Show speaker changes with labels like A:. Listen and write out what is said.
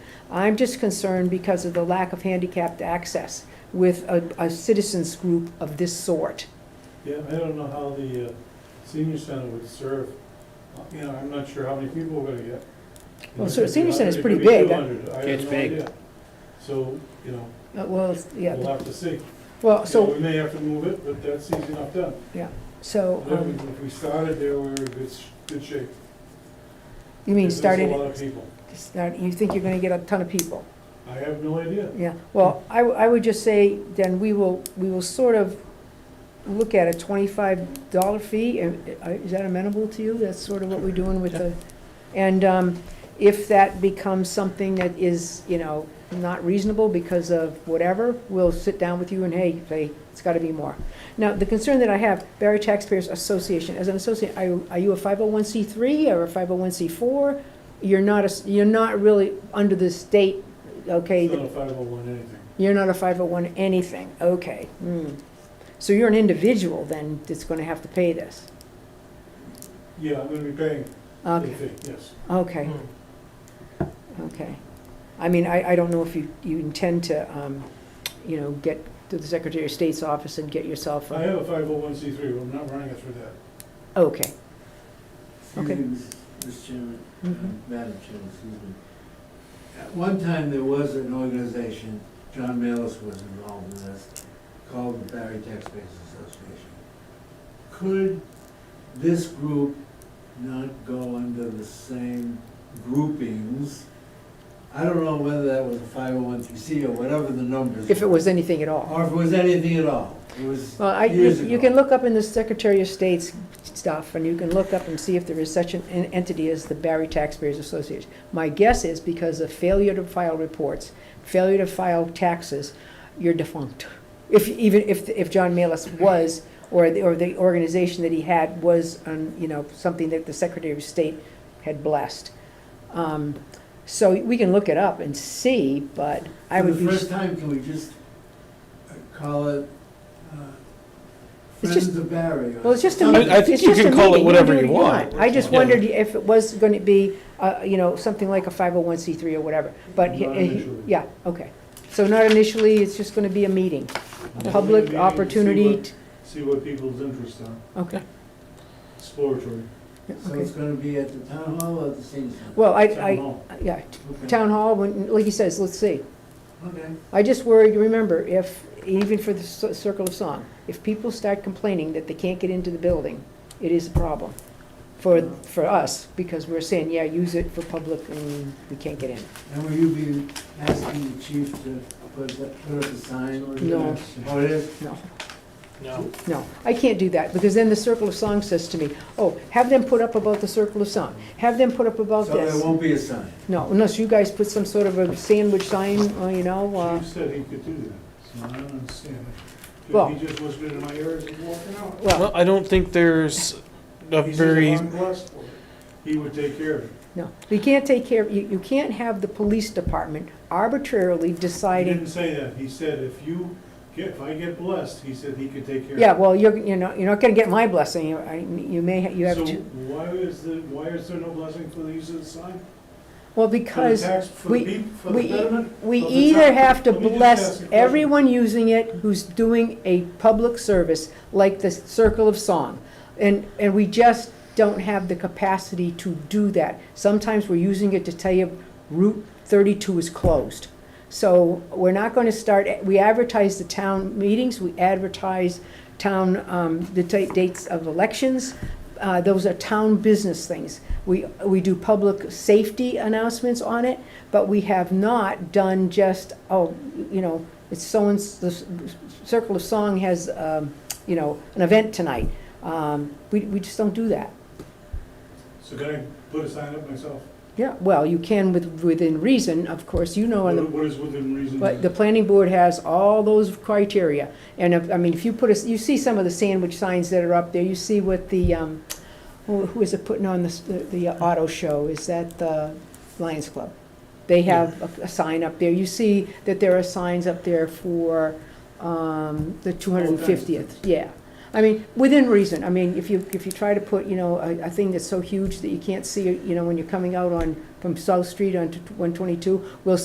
A: I'm just concerned because of the lack of handicapped access with a, a citizens group of this sort.
B: Yeah, I don't know how the uh, senior center would serve, Uh, you know, I'm not sure how many people we're gonna get.
A: Well,
B: It
A: so
B: could be
A: senior center's
B: 100, it
A: pretty
B: could be
A: big, I-
B: 200, I have
C: It's
B: no
C: big.
B: idea. So, you know,
A: Uh, Well, yeah,
B: we'll have to see.
A: well,
B: So
A: so,
B: we may have to move it, but that's easy enough done.
A: so,
B: Then
A: um,
B: we- If we started there, we were in good, s- good shape.
A: you mean
B: There's a
A: started,
B: lot of people.
A: start- you think you're gonna get a ton of people?
B: I have no idea.
A: Yeah, well, I, I would just say, then we will, we will sort of look at a twenty-five dollar fee, and, uh, is that amenable to you? That's sort of what we're doing with the, and, um, if that becomes something that is, you know, not reasonable because of whatever, we'll sit down with you and, hey, say, it's gotta be more. Now, the concern that I have, Barry Taxpayers Association, as an associate, are, you- are you a five oh one C three or a five oh one C four? You're not, a s- you're not really under the state, okay?
B: It's not a 501 anything.
A: You're not a 501 anything, okay. hmm. So you're an individual then that's going to have to pay this?
B: Yeah, I'm gonna be paying the
A: Okay,
B: fee, yes.
A: okay, okay. I mean, I, I don't know if you, you intend to, um, you know, get to the Secretary of State's office and get yourself
B: I
A: a,
B: have a 501c3, but I'm not running it through that.
A: okay. Okay.
D: Excuse me, Ms. Mr. Chairman,
A: Mhm.
D: uh, Madam Chairman, excuse me. At one time, there was an organization, John Malice was involved in this, called the Barry Taxpayers Association. Could this group not go under the same groupings? I don't know whether that was a five oh one three C or whatever the numbers.
A: If it
D: were.
A: was anything at all.
D: Or if it was anything at all. It was
A: Well, I,
D: years
A: you
D: ago.
A: you can look up in the Secretary of State's stuff, and you can look up and see if there is such an en- entity as the Barry Taxpayers Association. My guess is because of failure to file reports, failure to file taxes, you're defunct. If, even if, if John Malus was, or the, or the organization that he had was, um, you know, something that the Secretary of State had blessed. Um, So we can look it up and see, but I
D: For
A: would
D: the
A: be.
D: first time, can we just uh, call it uh,
A: It's just-
D: Friends of Barry? or
A: Well, it's just a
D: something?
A: meeting.
C: I- I think
A: It's
C: you
A: just a
C: can call it
A: meeting.
C: whatever
A: do
C: you
A: what
D: want.
A: I just
D: Yeah.
A: wondered if it was going to be, uh, you know, something like a 501c3 or whatever, but, he-
B: Not
A: he-
B: initially.
A: yeah, okay. So not initially, it's just going to be a meeting,
B: Yeah.
A: public
B: Maybe
A: opportunity,
B: see See what people's interests are,
A: t- okay.
B: exploratory.
A: Yeah,
D: So
A: okay.
D: it's gonna be at the town hall or the senior center?
A: Well, I,
B: Town
A: I,
B: hall.
A: yeah, t-
D: Okay.
A: town hall, when, like he says, let's see.
D: Okay,
A: I just worry, remember, if, even for the Cir- Circle of Song, if people start complaining that they can't get into the building, it is a problem for, for us, because we're saying, yeah, use it for public and we can't get in.
D: and will you be asking the chief to put that- put up a sign? or-
A: No.
D: Oh, it is?
A: No,
C: No.
A: no, I can't do that, because then the Circle of Song says to me, oh, have them put up about the Circle of Song, have them put up about
D: So there
A: this.
D: won't be a sign?
A: No, unless you guys put some sort of a sandwich sign, uh, you know, uh,
B: Chief said he could do that, so I don't understand it.
A: Well-
B: He just whispered in my ear as he's walking out.
A: well,
C: Well, I don't think there's a
B: He's
C: very,
B: just a long glass for it. He would take care of it.
A: no. You can't take care, you, you can't have the police department arbitrarily
B: He
A: deciding,
B: didn't say that, he said if you, get if I get blessed, he said he could take care of it.
A: yeah, well, you're, you know, you're not gonna get my blessing, you, I- you may, ha- you have
B: So
A: to,
B: why is the, why is there no blessing for the use of the sign?
A: well,
B: For the
A: because.
B: tax, for
A: we-
B: the people, for the
A: we- e-,
B: betterment?
A: We
B: Well, the
A: either
B: town-
A: have to
B: let me just ask
A: bless
B: a question.
A: everyone using it who's doing a public service, like the Circle of Song. And, and we just don't have the capacity to do that. Sometimes we're using it to tell you Route thirty-two is closed. So we're not gonna start, we advertise the town meetings, we advertise town, um, the ta- dates of elections. Uh, those are town business things. We, we do public safety announcements on it, but we have not done just, oh, you know, it's so and, the Circle of Song has, um, you know, an event tonight. Um, we, we just don't do that.
B: So can I put a sign up myself?
A: Yeah, well, you can with, within reason, of course, you know, on the
B: What what is within reason?
A: But the planning board has all those criteria, and if, I mean, if you put us, you see some of the sandwich signs that are up there, you see what the, um, who who is it putting on this- the, the auto show, is that the Lions Club? They have a, a sign up there, you see that there are signs up there for, um, the two hundred and fiftieth, yeah. I mean, within reason, I mean, if you, if you try to put, you know, a, a thing that's so huge that you can't see, it, you know, when you're coming out on, from South Street onto one twenty-two, we'll